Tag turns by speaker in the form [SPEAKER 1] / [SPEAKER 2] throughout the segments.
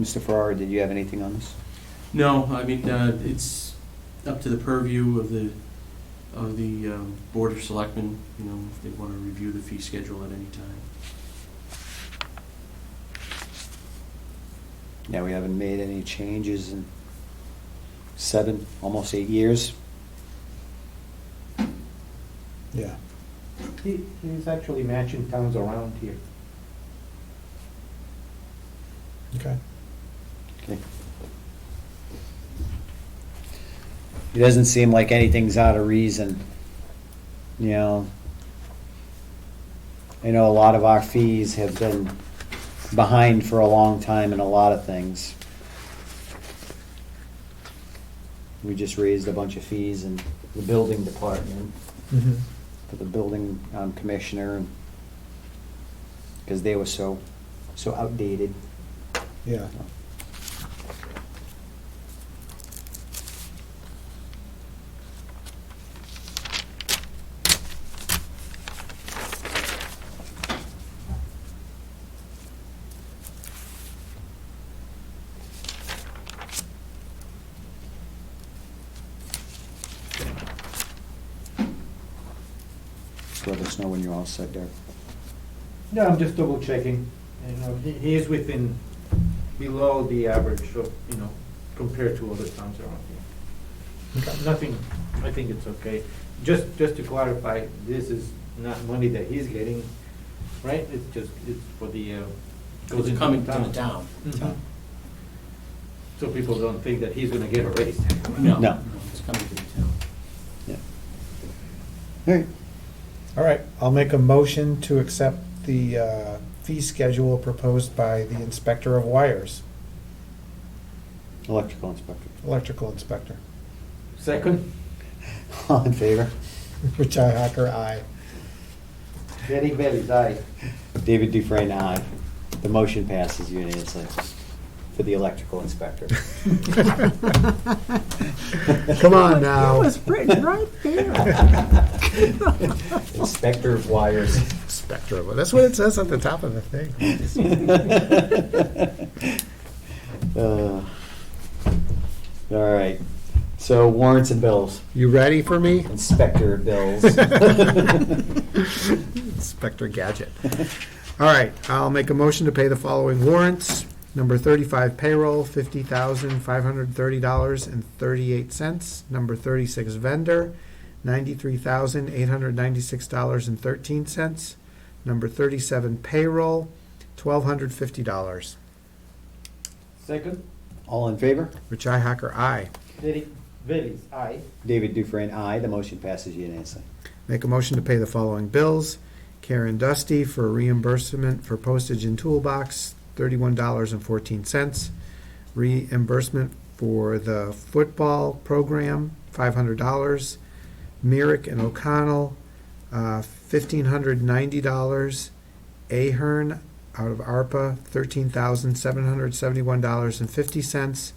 [SPEAKER 1] Mr. Farrar, did you have anything on this?
[SPEAKER 2] No, I mean, uh, it's up to the purview of the, of the um, Board of Selectmen, you know, if they want to review the fee schedule at any time.
[SPEAKER 1] Yeah, we haven't made any changes in seven, almost eight years.
[SPEAKER 3] Yeah.
[SPEAKER 4] He, he's actually matching towns around here.
[SPEAKER 3] Okay.
[SPEAKER 1] Okay. It doesn't seem like anything's out of reason, you know. I know a lot of our fees have been behind for a long time in a lot of things. We just raised a bunch of fees in the building department
[SPEAKER 3] Mm-hmm.
[SPEAKER 1] for the building um, commissioner because they were so, so outdated.
[SPEAKER 3] Yeah.
[SPEAKER 1] Let us know when you're all set there.
[SPEAKER 4] No, I'm just double checking, you know, he, he is within, below the average of, you know, compared to other towns around here. Nothing, I think it's okay. Just, just to clarify, this is not money that he's getting, right? It's just, it's for the, uh, goes
[SPEAKER 2] It's
[SPEAKER 4] into
[SPEAKER 2] coming to the town.
[SPEAKER 4] Mhm. So people don't think that he's gonna get a raise.
[SPEAKER 1] No.
[SPEAKER 2] No, no, it's coming to the town.
[SPEAKER 1] Yeah. All right,
[SPEAKER 3] All right, I'll make a motion to accept the uh, fee schedule proposed by the inspector of wires,
[SPEAKER 1] electrical inspector.
[SPEAKER 3] electrical inspector.
[SPEAKER 4] Second,
[SPEAKER 1] All in favor?
[SPEAKER 3] Richi Hacker, aye.
[SPEAKER 4] Derek Bailey's aye.
[SPEAKER 1] David Dufresne, aye. The motion passes unanimously for the electrical inspector.
[SPEAKER 3] Come on now.
[SPEAKER 5] written right there.
[SPEAKER 1] Inspector of wires.
[SPEAKER 3] Inspector, well, that's what it says at the top of the thing.
[SPEAKER 1] Uh, All right, so warrants and bills,
[SPEAKER 3] You ready for me?
[SPEAKER 1] inspector of bills.
[SPEAKER 3] Inspector Gadget. All right, I'll make a motion to pay the following warrants. Number thirty-five payroll, fifty thousand, five hundred thirty dollars and thirty-eight cents. Number thirty-six vendor, ninety-three thousand, eight hundred ninety-six dollars and thirteen cents. Number thirty-seven payroll, twelve hundred fifty dollars.
[SPEAKER 4] Second,
[SPEAKER 1] All in favor?
[SPEAKER 3] Richi Hacker, aye.
[SPEAKER 4] Derek Bailey's aye.
[SPEAKER 1] David Dufresne, aye. The motion passes unanimously.
[SPEAKER 3] Make a motion to pay the following bills. Karen Dusty for reimbursement for postage and toolbox, thirty-one dollars and fourteen cents. Reimbursement for the football program, five hundred dollars. Merrick and O'Connell, uh, fifteen hundred ninety dollars. Ahern out of ARPA, thirteen thousand seven hundred seventy-one dollars and fifty cents.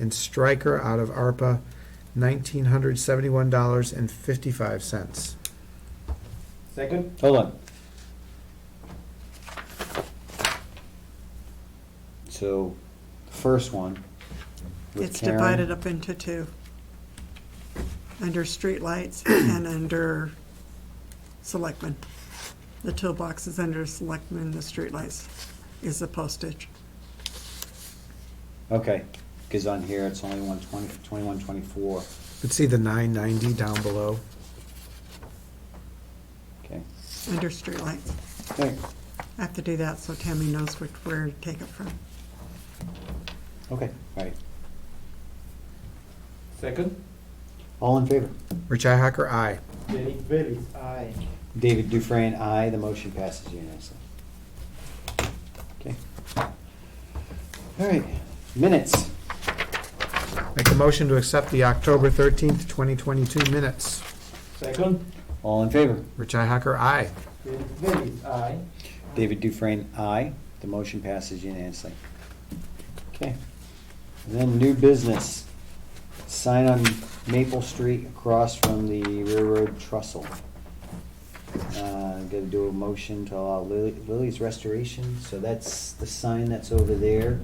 [SPEAKER 3] And Stryker out of ARPA, nineteen hundred seventy-one dollars and fifty-five cents.
[SPEAKER 4] Second,
[SPEAKER 1] Hold on. So, the first one. with
[SPEAKER 5] It's
[SPEAKER 1] Karen-
[SPEAKER 5] divided up into two. Under streetlights and under selectmen. The toolbox is under selectmen, the streetlights is the postage.
[SPEAKER 1] Okay, because on here, it's only one twenty, twenty-one, twenty-four,
[SPEAKER 3] Let's see the nine ninety down below.
[SPEAKER 1] okay.
[SPEAKER 5] Under streetlights.
[SPEAKER 1] Okay,
[SPEAKER 5] I have to do that so Tammy knows which, where to take it from.
[SPEAKER 1] okay, all right.
[SPEAKER 4] second.
[SPEAKER 1] All in favor?
[SPEAKER 3] Richi Hacker, aye.
[SPEAKER 4] Derek Bailey's aye.
[SPEAKER 1] David Dufresne, aye. The motion passes unanimously. Okay. All right, minutes.
[SPEAKER 3] Make a motion to accept the October thirteenth, twenty twenty-two minutes.
[SPEAKER 4] Second,
[SPEAKER 1] All in favor?
[SPEAKER 3] Richi Hacker, aye.
[SPEAKER 4] Derek Bailey's aye.
[SPEAKER 1] David Dufresne, aye. The motion passes unanimously. Okay. And Then new business. Sign on Maple Street across from the railroad trestle. Uh, Got to do a motion to allow Lily- Lily's Restoration, so that's the sign that's over there.